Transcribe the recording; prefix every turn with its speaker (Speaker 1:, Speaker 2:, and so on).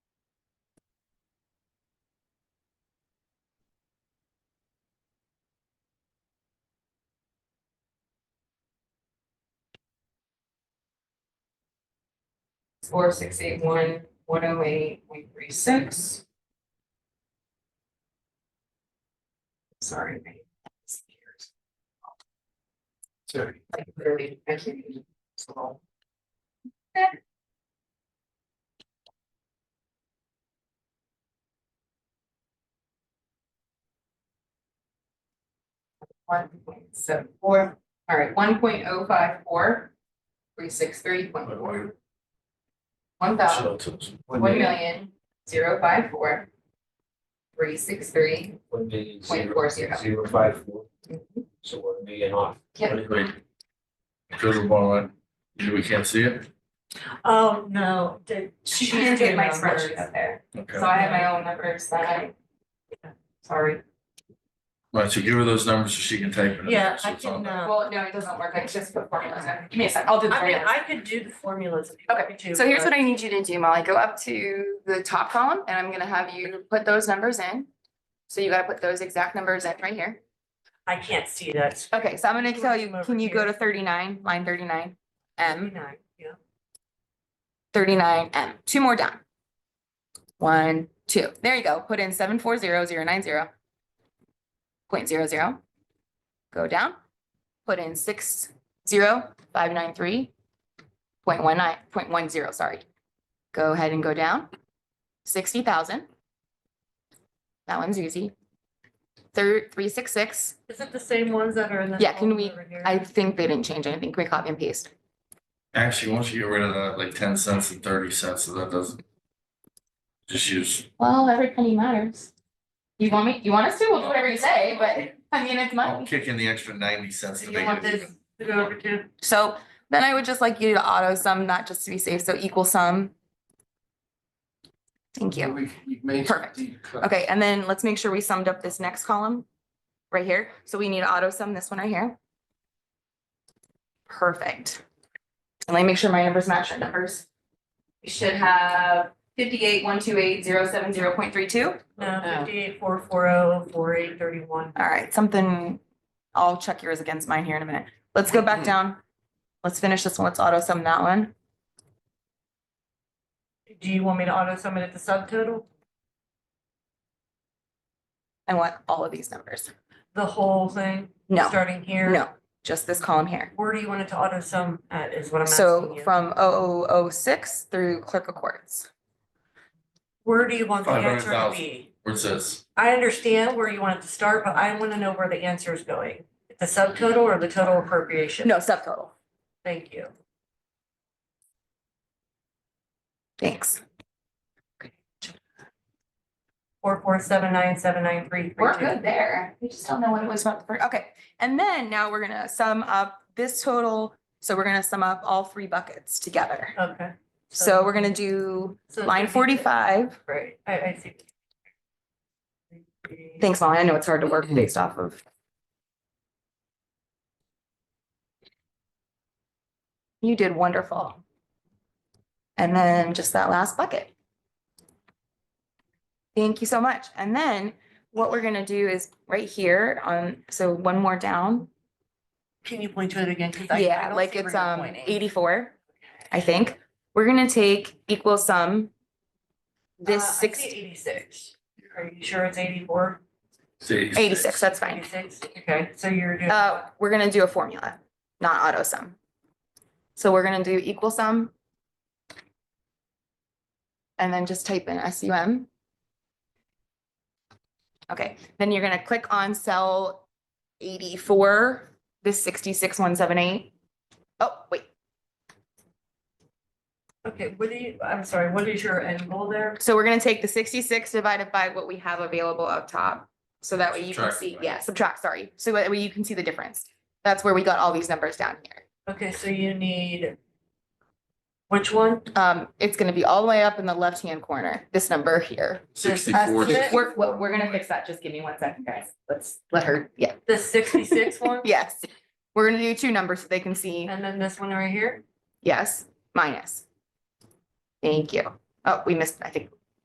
Speaker 1: four six eight one one oh eight one three six. Sorry. my-
Speaker 2: Sorry.
Speaker 1: Like literally, I can't even scroll. One point seven four, all right, one point oh five four, three six three point four. One thousand.
Speaker 2: Shelters.
Speaker 1: One million, zero five four. Three six three.
Speaker 2: One million,
Speaker 1: Point
Speaker 2: zero-
Speaker 1: four zero. Mm-hmm.
Speaker 2: Zero five four, so one million off.
Speaker 1: Yep.
Speaker 3: Wait. Goes along line. You- we can't see it?
Speaker 4: Oh, no, did.
Speaker 1: She didn't get my spreadsheet up there,
Speaker 3: Okay.
Speaker 1: so I have my own numbers that I. Sorry,
Speaker 3: Right, so give her those numbers so she can type it. in.
Speaker 4: Yeah,
Speaker 3: So
Speaker 4: I
Speaker 3: it's on
Speaker 4: can,
Speaker 3: there.
Speaker 4: uh,
Speaker 1: well, no, it doesn't work, I just put formulas in, give me a sec, I'll do the
Speaker 4: I mean,
Speaker 1: formulas.
Speaker 4: I could do the formulas if you want me to.
Speaker 5: So here's what I need you to do, Molly. Go up to the top column and I'm gonna have you put those numbers in. So you gotta put those exact numbers in right here.
Speaker 4: I can't see that.
Speaker 5: Okay, so I'm gonna tell you,
Speaker 4: Over
Speaker 5: can you go
Speaker 4: here.
Speaker 5: to thirty-nine, line thirty-nine? M,
Speaker 4: Nine, yeah.
Speaker 5: thirty-nine, M, two more down. One, two, there you go. Put in seven four zero zero nine zero. Point zero zero. Go down. Put in six zero five nine three. Point one nine, point one zero, sorry. Go ahead and go down. Sixty thousand. That one's easy. Third, three six six.
Speaker 4: Is it the same ones that are in the?
Speaker 5: Yeah, can
Speaker 4: column
Speaker 5: we-
Speaker 4: over here?
Speaker 5: I think they didn't change anything. Can we copy and paste?
Speaker 3: Actually, once you get rid of that, like ten cents and thirty cents, so that doesn't. Just use,
Speaker 5: Well, every penny matters. You want me, you want us to? We'll do whatever you say, but I mean, it's
Speaker 3: I'll
Speaker 5: money.
Speaker 3: kick in the extra ninety cents
Speaker 4: Do
Speaker 3: to
Speaker 4: you
Speaker 3: make
Speaker 4: want
Speaker 3: it.
Speaker 4: this
Speaker 3: even.
Speaker 4: to go over to? uh,
Speaker 5: So then I would just like you to auto sum, not just to be safe, so equal sum. Thank you.
Speaker 2: We, we made. some
Speaker 5: Perfect.
Speaker 2: deep cuts.
Speaker 5: Okay, and then let's make sure we summed up this next column right here. So we need to auto sum this one right here. Perfect. And let me make sure my numbers match your numbers. We should have fifty-eight, one, two, eight, zero, seven, zero point three, two.
Speaker 4: No,
Speaker 1: No.
Speaker 4: fifty-eight, four, four, oh, four, eight, thirty-one.
Speaker 5: All right, something, I'll check yours against mine here in a minute. Let's go back down. Let's finish this one. Let's auto sum that one.
Speaker 4: Do you want me to auto sum it at the subtotal?
Speaker 5: I want all of these numbers.
Speaker 4: The whole thing?
Speaker 5: No,
Speaker 4: Starting here?
Speaker 5: no, just this column here.
Speaker 4: Where do you want it to auto sum at is what I'm asking
Speaker 5: So
Speaker 4: you.
Speaker 5: from 0006 through clerk of courts.
Speaker 4: Where do you want the answer to
Speaker 3: 500,000.
Speaker 4: be?
Speaker 3: Where it says,
Speaker 4: I understand where you want it to start, but I wanna know where the answer is going. The subtotal or the total appropriation?
Speaker 5: No, subtotal.
Speaker 4: Thank you.
Speaker 5: Thanks.
Speaker 4: Four, four, seven, nine, seven, nine, three, three,
Speaker 5: We're
Speaker 4: two.
Speaker 5: good there. We just don't know what it was about. for- Okay, and then now we're gonna sum up this total. So we're gonna sum up all three buckets together.
Speaker 4: Okay.
Speaker 5: So we're gonna do
Speaker 4: so it's
Speaker 5: line
Speaker 4: gonna be-
Speaker 5: forty-five.
Speaker 4: Right, I, I see.
Speaker 5: Thanks, Molly. I know it's hard to work based off of. You did wonderful. And then just that last bucket. Thank you so much. And then what we're gonna do is right here on, so one more down.
Speaker 4: Can you point to it again? 'Cause I- I
Speaker 5: Yeah,
Speaker 4: don't
Speaker 5: like
Speaker 4: see where
Speaker 5: it's
Speaker 4: you're
Speaker 5: um
Speaker 4: pointing.
Speaker 5: eighty-four, I think. We're gonna take equal sum. This
Speaker 4: Uh, I see
Speaker 5: six,
Speaker 4: Eighty-six. Are you sure it's eighty-four?
Speaker 3: say.
Speaker 5: eighty-six, that's fine.
Speaker 4: Eighty-six, okay, so you're doing.
Speaker 5: Uh, we're gonna do a formula, not auto sum. So we're gonna do equal sum. And then just type in S U M. Okay, then you're gonna click on cell eighty-four, this sixty-six, one, seven, eight. Oh, wait,
Speaker 4: Okay, what do you, I'm sorry, what is your end goal there?
Speaker 5: So we're gonna take the sixty-six divided by what we have available up top. So that way you can
Speaker 3: Subtract,
Speaker 5: see,
Speaker 3: right?
Speaker 5: yeah, subtract, sorry. So that way you can see the difference. That's where we got all these numbers down here.
Speaker 4: Okay, so you need. Which one?
Speaker 5: Um, it's gonna be all the way up in the left-hand corner, this number here.
Speaker 3: Sixty-four.
Speaker 4: This-
Speaker 3: sixty-
Speaker 5: We're, we're, we're gonna fix that. Just give me one second, guys. Let's let her, yeah.
Speaker 4: The sixty-six one?
Speaker 5: Yes. We're gonna do two numbers so they can see,
Speaker 4: And then this one right here?
Speaker 5: yes, minus. Thank you. Oh, we missed, I think,